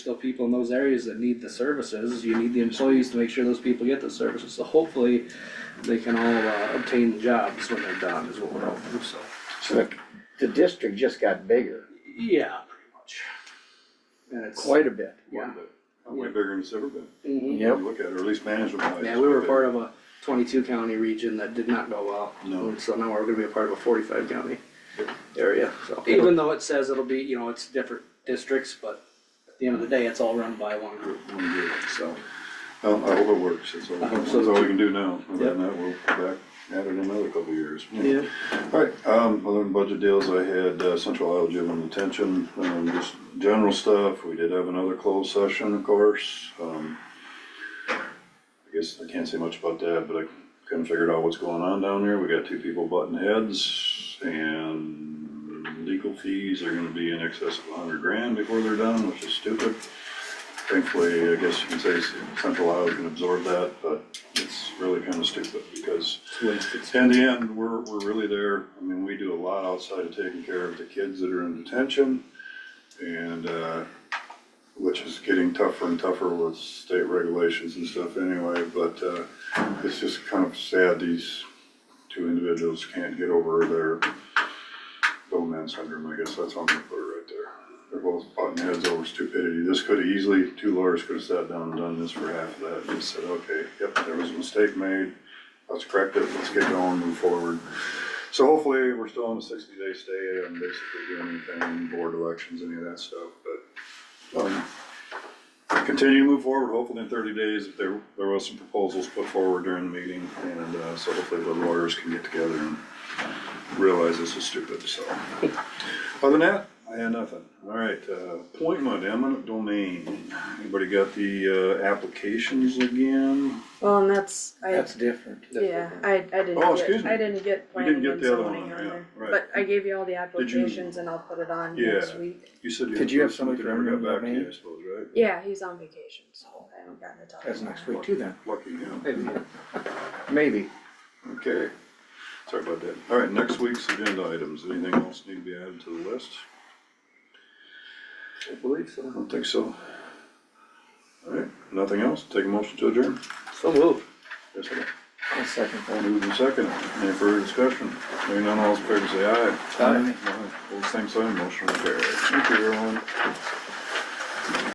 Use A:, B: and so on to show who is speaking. A: still people in those areas that need the services, you need the employees to make sure those people get the services, so hopefully they can all uh, obtain the jobs when they're done is what we're hoping, so.
B: So the, the district just got bigger,
A: Yeah, pretty much. And it's.
B: quite a bit.
A: Yeah.
C: Way big- Way bigger than it's ever been,
A: Mhm.
C: when you look at it, or at least management wise.
A: Yeah, we were part of a twenty-two county region that did not go well.
C: No.
A: And So now we're gonna be a part of a forty-five county
C: Yep.
A: area, so even though it says it'll be, you know, it's different districts, but at the end of the day, it's all run by one group, so.
C: Well, I hope it works, that's all,
A: I hope
C: that's
A: so
C: all
A: too.
C: we can do now, other than that, we'll go back at it another couple of years. Alright, um, other than budget deals, I had uh, Central Iowa Gym and Detention, um, just general stuff, we did have another closed session, of course, um. I guess I can't say much about that, but I couldn't figure out what's going on down there, we got two people butting heads, and legal fees are gonna be in excess of a hundred grand before they're done, which is stupid. Thankfully, I guess you can say Central Iowa can absorb that, but it's really kinda stupid, because in the end, we're, we're really there, I mean, we do a lot outside of taking care of the kids that are in detention. And, uh, which is getting tougher and tougher with state regulations and stuff anyway, but, uh, it's just kind of sad these two individuals can't get over their bowman syndrome, I guess that's how I'm gonna put it right there. They're both butting heads over stupidity, this could have easily, two lawyers could have sat down and done this for half of that, and just said, okay, yep, there was a mistake made, let's correct it, let's get going, move forward. So hopefully, we're still on the sixty day stay and basically doing anything, board elections, any of that stuff, but, um, continue to move forward, hopefully in thirty days, if there, there was some proposals put forward during the meeting, and, uh, so hopefully the lawyers can get together and realize this is stupid, so. Other than that, I had nothing. All right, uh, appointment, eminent domain. Anybody got the, uh, applications again?
D: Well, and that's, I,
B: That's different.
D: yeah, I, I didn't
C: Oh,
D: get,
C: excuse me.
D: I didn't get
C: You didn't
D: planning
C: get
D: and
C: the other one
D: zoning
C: on
D: on
C: there,
D: there.
C: right.
D: But I gave you all the
C: Did you-
D: applications and I'll put it on
C: Yeah.
D: next week.
C: You said you.
B: Did you have
C: something
B: somebody
C: that never
B: from
C: got back to you,
B: Maine?
C: I suppose, right?
D: Yeah, he's on vacation, so I haven't gotten to talk.
B: That's next week too then,
C: Lucky him.
B: maybe.
C: Okay. Sorry about that. All right, next week's agenda items. Anything else need to be added to the list?
A: I believe
C: I
A: so.
C: don't think so. All right, nothing else? Take a motion to adjourn?
A: So move.
C: Yes, I
B: I'll second that.
C: Moved and second, any further discussion? Hearing none, all those in favor say aye.
B: Aye.
C: All same sign, motion will carry. Thank you, everyone.